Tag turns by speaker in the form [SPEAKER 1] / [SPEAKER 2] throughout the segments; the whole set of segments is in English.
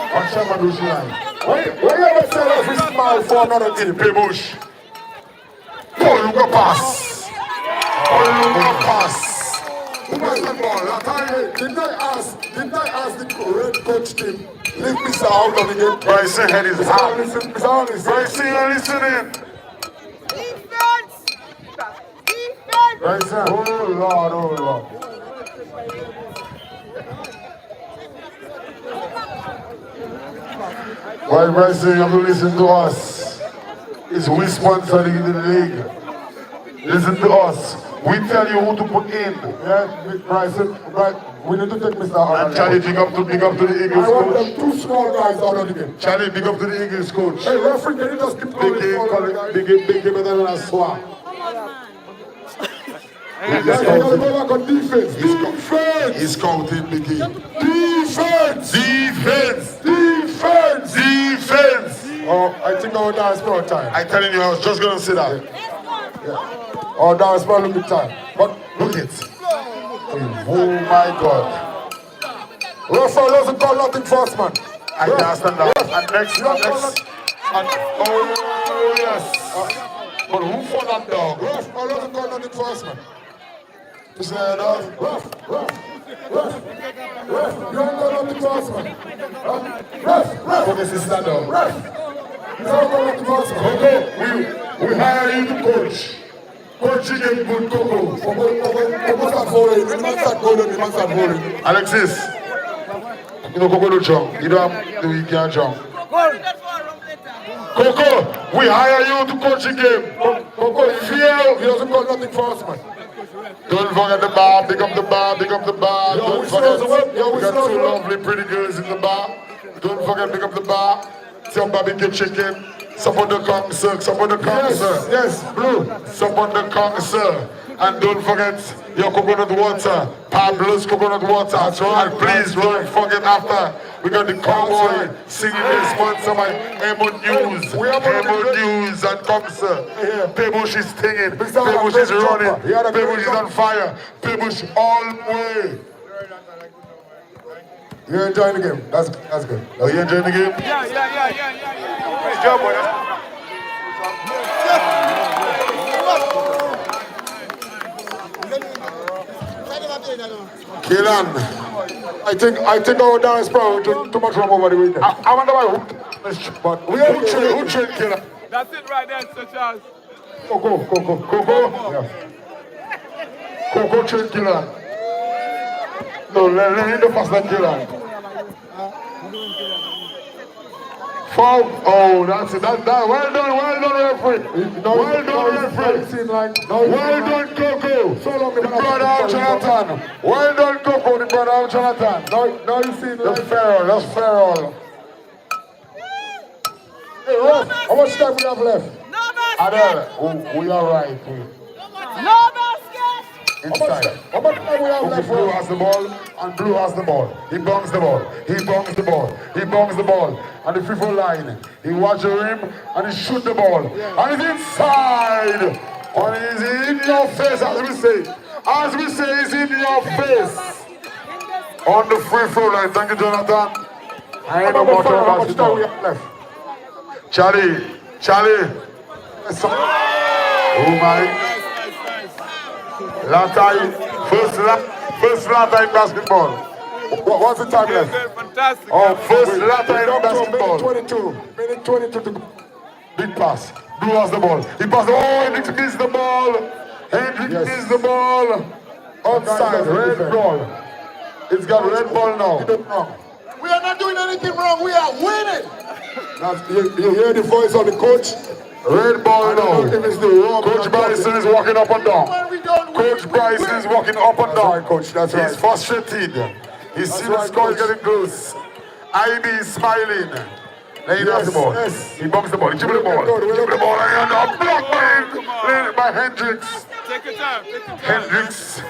[SPEAKER 1] Shaman Line. Why why you ever sell off his mouth for another thing, Pebush? Paul Lugo pass. Paul Lugo pass. Who was the ball? I can't- Didn't I ask? Didn't I ask the correct coach team? Leave Mr. out of the game.
[SPEAKER 2] Bryson head is
[SPEAKER 1] Mr.
[SPEAKER 2] hot.
[SPEAKER 1] Allison, Mr. Allison.
[SPEAKER 2] Bryson, you're listening.
[SPEAKER 3] Defense! Defense!
[SPEAKER 1] Bryson. Oh Lord, oh Lord. Why Bryson, you have to listen to us. It's we sponsor the the league. Listen to us. We tell you who to put in. Yeah, Big Bryson, right? We need to take Mr.
[SPEAKER 2] And
[SPEAKER 1] Holland.
[SPEAKER 2] Charlie, big up to big up to the Eagles
[SPEAKER 1] I want
[SPEAKER 2] coach.
[SPEAKER 1] them two small guys out of the game.
[SPEAKER 2] Charlie, big up to the Eagles coach.
[SPEAKER 1] Hey, referee, can you just keep
[SPEAKER 2] Big
[SPEAKER 1] calling
[SPEAKER 2] game,
[SPEAKER 1] for
[SPEAKER 2] call
[SPEAKER 1] the
[SPEAKER 2] it-
[SPEAKER 1] guy?
[SPEAKER 2] big game, big game better than a swap.
[SPEAKER 1] Guys, you gotta go back on defense. Defense!
[SPEAKER 2] He's counting big game.
[SPEAKER 1] Defense!
[SPEAKER 2] Defense,
[SPEAKER 1] Defense!
[SPEAKER 2] defense.
[SPEAKER 1] Oh, I think our dance floor time.
[SPEAKER 2] I telling you, I was just gonna say that.
[SPEAKER 1] Our dance floor limit time. But
[SPEAKER 2] Look it.
[SPEAKER 1] Oh my God. Rafa doesn't call nothing first, man.
[SPEAKER 2] I can understand that. And next,
[SPEAKER 1] Yeah.
[SPEAKER 2] and next. And, oh yes. But who for that dog?
[SPEAKER 1] Rafa doesn't call nothing first, man. uh, You say that? Raf, Raf, Raf, Raf, you don't call nothing first, man. Um, Raf, Raf, Raf,
[SPEAKER 2] This is that dog.
[SPEAKER 1] Raf. You don't call nothing first, man. Okay,
[SPEAKER 2] We hire you to coach. Coaching is good coco.
[SPEAKER 1] we, we, we, we must have fallen. We must have fallen. We must have fallen.
[SPEAKER 2] Alexis, you know Coco don't jump. You don't have, you can't jump. Coco, we hire you to coach the game. Coco, if
[SPEAKER 1] He
[SPEAKER 2] you
[SPEAKER 1] doesn't call nothing first, man.
[SPEAKER 2] don't forget the bar, pick up the bar, pick up the bar.
[SPEAKER 1] Yo,
[SPEAKER 2] Don't
[SPEAKER 1] we
[SPEAKER 2] forget,
[SPEAKER 1] still the web, yo, we
[SPEAKER 2] we got
[SPEAKER 1] still
[SPEAKER 2] two
[SPEAKER 1] the web.
[SPEAKER 2] lovely pretty girls in the bar. Don't forget, pick up the bar. Some barbecue chicken. Support the concert, support the
[SPEAKER 1] Yes,
[SPEAKER 2] concert.
[SPEAKER 1] yes, blue.
[SPEAKER 2] Support the council. And don't forget your coconut water. Pablo's coconut water. And please don't forget after. We got the cowboy singing is sponsored by Emo News.
[SPEAKER 1] We have one of the
[SPEAKER 2] Emo
[SPEAKER 1] great-
[SPEAKER 2] News and council.
[SPEAKER 1] Yeah.
[SPEAKER 2] Pebush is singing.
[SPEAKER 1] Mr.
[SPEAKER 2] Pebush is
[SPEAKER 1] Pebush
[SPEAKER 2] running.
[SPEAKER 1] Chopper. He had a great
[SPEAKER 2] Pebush is
[SPEAKER 1] jump.
[SPEAKER 2] on fire. Pebush all the way.
[SPEAKER 1] You're enjoying the game. That's, that's good.
[SPEAKER 2] Are you enjoying the game?
[SPEAKER 3] Yeah, yeah, yeah, yeah, yeah, yeah.
[SPEAKER 2] Good job, boy.
[SPEAKER 1] Keelan. I think I think our dance probably took too much rum over the weekend.
[SPEAKER 2] I, I wonder why who,
[SPEAKER 1] But we are
[SPEAKER 2] who trained who trained Killer.
[SPEAKER 3] That's it right there, Sir Charles.
[SPEAKER 1] Go go go go go go. Yeah.
[SPEAKER 2] Coco trained Killer. No, let, let him pass that Killer. Foul. Oh, that's it. That, that. Well done, well done, referee.
[SPEAKER 1] You know,
[SPEAKER 2] Well done, referee.
[SPEAKER 1] Seem like, no,
[SPEAKER 2] Well done, Coco.
[SPEAKER 1] So long,
[SPEAKER 2] The brother of Jonathan. Well done, Coco. The brother of Jonathan.
[SPEAKER 1] Now, now you see
[SPEAKER 2] That's
[SPEAKER 1] like
[SPEAKER 2] Farrell. That's Farrell.
[SPEAKER 1] hey, Ruff, how much time we have left?
[SPEAKER 3] No basket!
[SPEAKER 2] Adele, we, we are right. We-
[SPEAKER 3] No basket!
[SPEAKER 1] How much,
[SPEAKER 2] Inside.
[SPEAKER 1] time- how much time we have
[SPEAKER 2] Okay,
[SPEAKER 1] left?
[SPEAKER 2] blue
[SPEAKER 1] Ruff?
[SPEAKER 2] has the ball, and blue has the ball. He bongs the ball. He bongs the ball. He bongs the ball. And the free throw line. He watch the rim and he shoot the ball. And it's inside. And it's in your face, as we say. As we say, it's in your face. On the free throw line. Thank you, Jonathan. I ain't no
[SPEAKER 1] Number
[SPEAKER 2] more
[SPEAKER 1] five, how
[SPEAKER 2] talk
[SPEAKER 1] much time we have left?
[SPEAKER 2] Charlie, Charlie. Oh my. Last time, first la- first last time basketball.
[SPEAKER 1] What, what's the time left?
[SPEAKER 3] Fantastic.
[SPEAKER 2] Oh, first last
[SPEAKER 1] Minute
[SPEAKER 2] time basketball.
[SPEAKER 1] 22. Minute 22 to go.
[SPEAKER 2] Big pass. Blue has the ball. He passed. Oh, Hendrick missed the ball. Hendrick
[SPEAKER 1] Yes.
[SPEAKER 2] missed the ball. Outside, red ball. It's got red ball now.
[SPEAKER 1] Keep it wrong.
[SPEAKER 4] We are not doing anything wrong. We are winning.
[SPEAKER 1] That's, you, you hear the voice of the coach?
[SPEAKER 2] Red ball
[SPEAKER 1] I don't know
[SPEAKER 2] now.
[SPEAKER 1] if it's the wrong
[SPEAKER 2] Coach Bryson is walking up and down.
[SPEAKER 4] When we don't win,
[SPEAKER 2] Coach Bryson is walking up and
[SPEAKER 1] That's
[SPEAKER 2] down.
[SPEAKER 1] right, coach, that's
[SPEAKER 2] He's
[SPEAKER 1] right.
[SPEAKER 2] frustrated. He sees the
[SPEAKER 1] right,
[SPEAKER 2] score is
[SPEAKER 1] coach.
[SPEAKER 2] getting close. IB is smiling. Then he
[SPEAKER 1] Yes,
[SPEAKER 2] does the ball.
[SPEAKER 1] yes.
[SPEAKER 2] He bumps the ball. He dribbles the ball.
[SPEAKER 1] Well done, well
[SPEAKER 2] Dribble the
[SPEAKER 1] done.
[SPEAKER 2] ball and a block by, led by Hendricks.
[SPEAKER 3] Take your time, take your time.
[SPEAKER 2] Hendricks.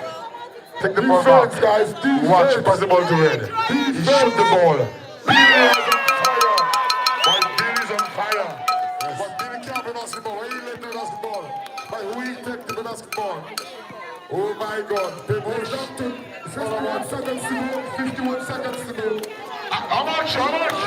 [SPEAKER 2] Take the ball
[SPEAKER 1] Defense,
[SPEAKER 2] back.
[SPEAKER 1] guys. Defense.
[SPEAKER 2] Watch, pass the ball to Red. He shoot the ball. Billy is on fire. But Billy's on fire.
[SPEAKER 1] But Billy can't play basketball. Why you let me basketball? Why we take the basketball? Oh my God. People shot to 51 seconds to go. 51 seconds to go.
[SPEAKER 2] How much? How much?